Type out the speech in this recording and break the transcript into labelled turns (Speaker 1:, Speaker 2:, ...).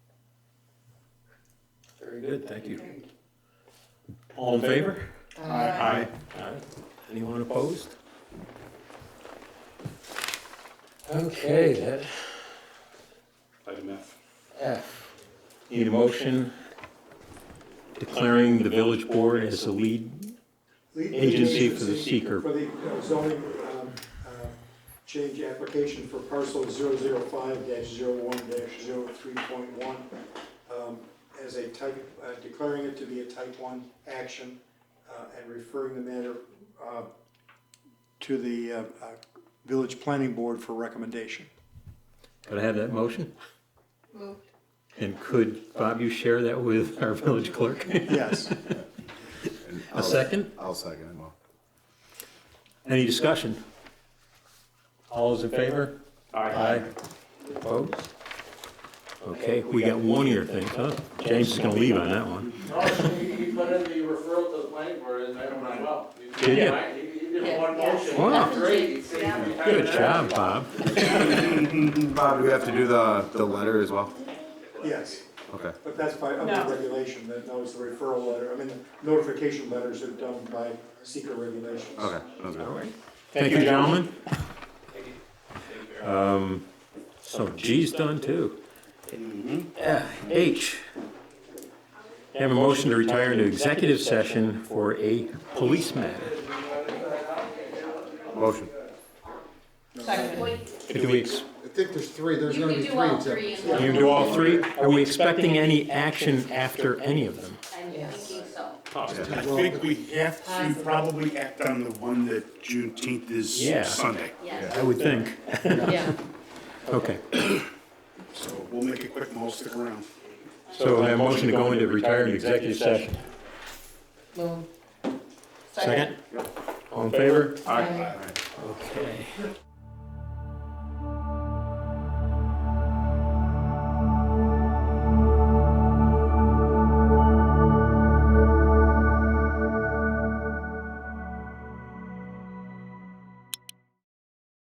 Speaker 1: Very
Speaker 2: Good, thank you.
Speaker 1: All in favor?
Speaker 3: Aye.
Speaker 1: Aye.
Speaker 2: Anyone opposed?
Speaker 1: Okay, that
Speaker 3: Item F.
Speaker 1: F. Need a motion declaring the village board as the lead
Speaker 4: Lead
Speaker 1: agency for the
Speaker 4: agency
Speaker 1: seeker.
Speaker 4: For the uh, zoning um, uh, change application for parcel 005-01-03.1 um, as a type, uh, declaring it to be a type 1 action uh, and referring the matter uh, to the uh, uh, village planning board for recommendation.
Speaker 1: Could I have that motion?
Speaker 5: Moved.
Speaker 1: And could, Bob, you share that with our village clerk?
Speaker 4: Yes.
Speaker 1: A second?
Speaker 3: I'll second it, Mo.
Speaker 1: Any discussion? All those in favor? Aye. Opposed? Okay, we got one ear thing, huh? James is gonna leave on that one.
Speaker 6: No, he, he put in the referral to the planning board as item as well.
Speaker 1: Did ya?
Speaker 6: Right? He, he did one
Speaker 5: Yeah.
Speaker 6: motion.
Speaker 1: Wow.
Speaker 6: Great, he saved me time
Speaker 1: Good
Speaker 6: and
Speaker 1: job, Bob.
Speaker 3: Bob, do we have to do the, the letter as well?
Speaker 4: Yes.
Speaker 3: Okay.
Speaker 4: But that's by
Speaker 5: No.
Speaker 4: under regulation, that that was the referral letter, I mean, notification letters are done by seeker regulations.
Speaker 3: Okay. that was good.
Speaker 1: Thank you, gentlemen. Um, so G's done too. Uh, H. Have a motion to retire into executive session for a police matter.
Speaker 3: Motion.
Speaker 5: Second.
Speaker 1: Do we, ex-
Speaker 7: I think there's three, there's
Speaker 5: You
Speaker 7: gonna
Speaker 5: can
Speaker 7: be
Speaker 5: do
Speaker 7: three
Speaker 5: all
Speaker 7: examples.
Speaker 5: three in
Speaker 1: you
Speaker 5: one.
Speaker 1: can do all three? Are we expecting any action after any of them?
Speaker 5: I'm thinking so.
Speaker 8: I think we have to probably act on the one that Juneteenth is
Speaker 1: Yeah.
Speaker 8: Sunday,
Speaker 5: Yes.
Speaker 1: I would think.
Speaker 5: Yeah.
Speaker 1: Okay.
Speaker 8: so we'll make it quick, Mo, stick around.
Speaker 1: So I have a motion to go into retire into executive session.
Speaker 5: Moved.
Speaker 1: Second? All in favor?
Speaker 5: Aye.
Speaker 1: Okay.